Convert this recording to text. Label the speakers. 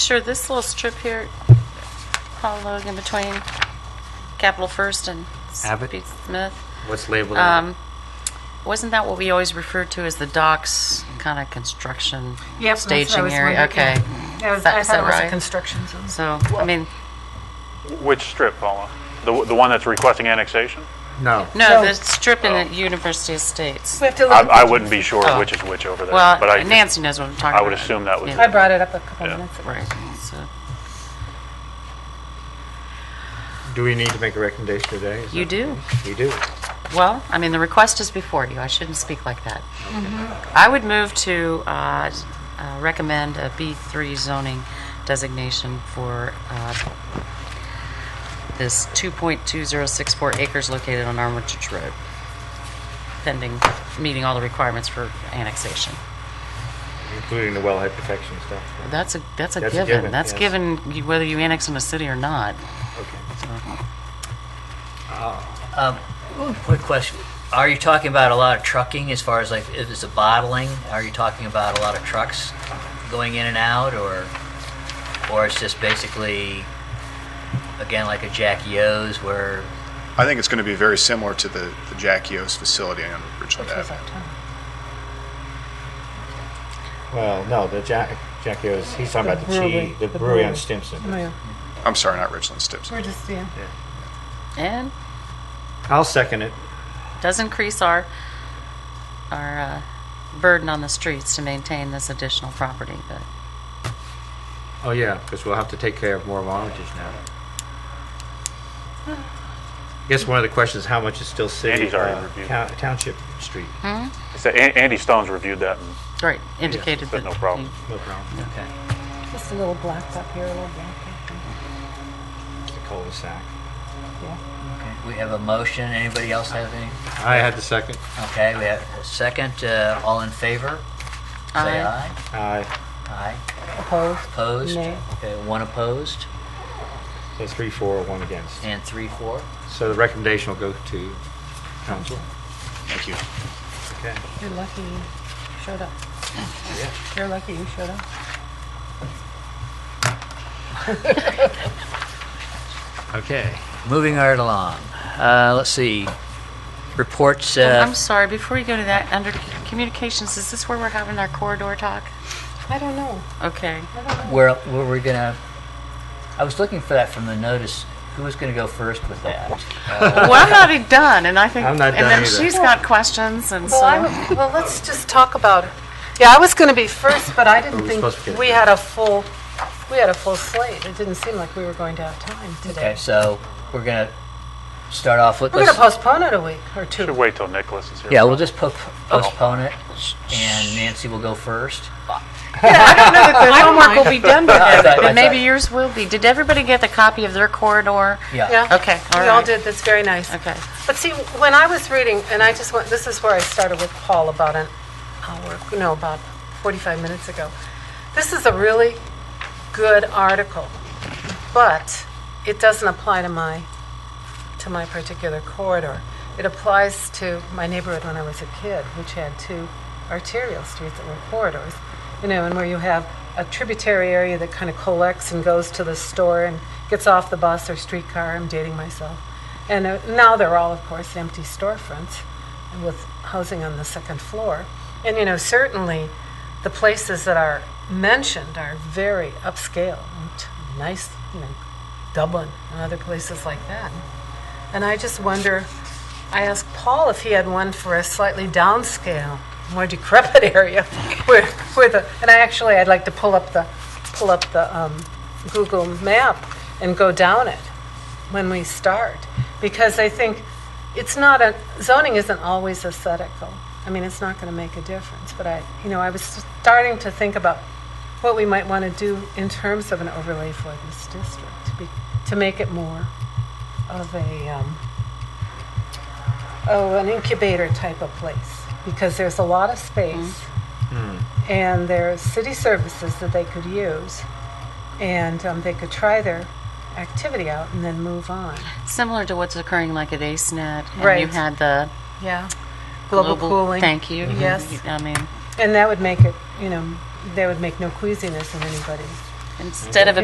Speaker 1: sure this little strip here, Paul Logan, between Capital First and
Speaker 2: Abbott?
Speaker 1: Speed Smith,
Speaker 2: What's labeled?
Speaker 1: um, wasn't that what we always referred to as the docks kind of construction
Speaker 3: Yep, that's what I
Speaker 1: staging
Speaker 3: was
Speaker 1: area?
Speaker 3: wondering, yeah.
Speaker 1: Okay.
Speaker 3: That was-
Speaker 1: That-
Speaker 3: I
Speaker 1: is
Speaker 3: thought
Speaker 1: that
Speaker 3: it was a
Speaker 1: right?
Speaker 3: construction zone.
Speaker 1: So, I mean,
Speaker 4: Which strip, Paula? The, the one that's requesting annexation?
Speaker 2: no.
Speaker 1: no,
Speaker 3: No.
Speaker 1: the strip in the University Estates.
Speaker 3: We have to
Speaker 4: I,
Speaker 3: look.
Speaker 4: I wouldn't be sure
Speaker 1: Oh.
Speaker 4: which is which over there.
Speaker 1: Well,
Speaker 4: but I,
Speaker 1: Nancy knows what I'm talking about.
Speaker 4: I would assume that was-
Speaker 1: Yeah.
Speaker 3: I brought it up a couple
Speaker 4: Yeah.
Speaker 3: minutes ago.
Speaker 1: Right, so
Speaker 2: Do we need to make a recommendation today? Is
Speaker 1: you
Speaker 2: that-
Speaker 1: do.
Speaker 2: We do.
Speaker 1: Well, I mean, the request is before you. I shouldn't speak like that. I would move to uh, s- uh, recommend a B3 zoning designation for uh, this 2.2064 acres located on Armitage Road, pending meeting all the requirements for annexation.
Speaker 2: Including the wellhead protection stuff. right?
Speaker 1: That's a, that's a
Speaker 2: That's a
Speaker 1: given.
Speaker 2: given,
Speaker 1: That's
Speaker 2: yes.
Speaker 1: given you- whether you annex in a city or not.
Speaker 2: Okay.
Speaker 5: Um, Quick question. Are you talking about a lot of trucking as far as like, if it's a bottling? Are you talking about a lot of trucks going in and out or, or it's just basically, again, like a Jackie O's where,
Speaker 6: I think it's going to be very similar to the, the Jack Yost facility on Richland
Speaker 3: Which was
Speaker 6: Avenue.
Speaker 3: up top.
Speaker 2: Well, no, the Jack, Jack Yo's, he's talking about the cheese, the brewery on Stimson.
Speaker 3: Oh, Yeah.
Speaker 6: I'm sorry, not Richland, Stips.
Speaker 3: We're just, yeah.
Speaker 1: And
Speaker 2: I'll second it.
Speaker 1: does increase our, our uh, burden on the streets to maintain this additional property, but
Speaker 2: Oh, yeah, because we'll have to take care of more of Armitage now. I guess one of the questions, how much is still city,
Speaker 4: Andy's already
Speaker 2: uh,
Speaker 4: reviewed.
Speaker 2: town- township street?
Speaker 4: So An- Andy Stone's reviewed that. and
Speaker 1: Right, indicated
Speaker 4: But
Speaker 1: that.
Speaker 4: no problem.
Speaker 2: No problem.
Speaker 5: okay.
Speaker 3: Just a little blocked up here, a little blocked up
Speaker 2: It's a cul-de-sac.
Speaker 3: there. Yeah.
Speaker 5: okay. We have a motion. Anybody else have any?
Speaker 2: I had the second.
Speaker 5: Okay, we have a second. Uh, all in favor? Say
Speaker 1: Aye.
Speaker 5: aye.
Speaker 2: Aye.
Speaker 5: Aye.
Speaker 3: Opposed?
Speaker 5: Opposed?
Speaker 3: Nay.
Speaker 5: Okay, one opposed
Speaker 2: So three, four, one against.
Speaker 5: and three, four.
Speaker 2: So the recommendation will go to council.
Speaker 6: Thank you.
Speaker 2: Okay.
Speaker 3: You're lucky you showed up. You're lucky you showed up.
Speaker 2: Okay.
Speaker 5: Moving right along. Uh, let's see. Reports,
Speaker 1: Well,
Speaker 5: uh,
Speaker 1: Oh, I'm sorry, before you go to that, under communications, is this where we're having our corridor talk?
Speaker 3: I don't know.
Speaker 1: Okay.
Speaker 5: Where, where we're gonna, I was looking for that from the notice, who was gonna go first with that? Uh,
Speaker 1: Well, I'm not done, and I think,
Speaker 2: I'm not
Speaker 1: and
Speaker 2: done
Speaker 1: then
Speaker 2: either.
Speaker 1: she's got questions, and
Speaker 3: Well, I,
Speaker 1: so,
Speaker 3: w- well, let's just talk about it. Yeah, I was going to be first, but I
Speaker 2: Are
Speaker 3: didn't
Speaker 2: we
Speaker 3: think
Speaker 2: supposed to get-
Speaker 3: we had a full, we had a full slate. It didn't seem like we were going to have time
Speaker 5: Okay,
Speaker 3: today.
Speaker 5: so we're gonna start off with,
Speaker 3: We're going to
Speaker 5: let's-
Speaker 3: postpone it a week or
Speaker 4: Should
Speaker 3: two.
Speaker 4: wait till Nicholas is here.
Speaker 5: yeah, we'll just po- postpone it, and Nancy will go first.
Speaker 1: the homework will be done by then,
Speaker 5: I thought- I
Speaker 1: but maybe
Speaker 5: thought-
Speaker 1: yours will be. Did everybody get the copy of their corridor?
Speaker 5: Yeah,
Speaker 3: Yeah.
Speaker 1: Okay, all
Speaker 3: We all
Speaker 1: right.
Speaker 3: did. That's very nice.
Speaker 1: Okay.
Speaker 3: But see, when I was reading, and I just went, this is where I started with Paul about an hour, no, about 45 minutes ago. This is a really good article, but it doesn't apply to my, to my particular corridor. It applies to my neighborhood when I was a kid, which had two arterial streets that were corridors, you know, and where you have a tributary area that kind of collects and goes to the store and gets off the bus or streetcar. I'm dating myself. And uh, now they're all, of course, empty storefronts with housing on the second floor. And, you know, certainly the places that are mentioned are very upscale and t- nice, you know, Dublin and other places like that. And I just wonder, I asked Paul if he had one for a slightly downscale, more decrepit area where, where the, and I actually, I'd like to pull up the, pull up the um, Google map and go down it when we start because I think it's not a zoning isn't always aesthetical. I mean, it's not going to make a difference. But I, you know, I was starting to think about what we might want to do in terms of an overlay for this district to, be, to make it more of a um, oh an incubator type of place because there's a lot of space and there's city services that they could use and um, they could try their activity out and then move on.
Speaker 1: Similar to what's occurring like at AceNet, E and you
Speaker 3: Right.
Speaker 1: had the
Speaker 3: Yeah. Global,
Speaker 1: global...
Speaker 3: cooling.
Speaker 1: Thank you.
Speaker 3: Yes.
Speaker 1: I mean,
Speaker 3: And that would make it, you know, that would make no queasiness in anybody.
Speaker 1: instead of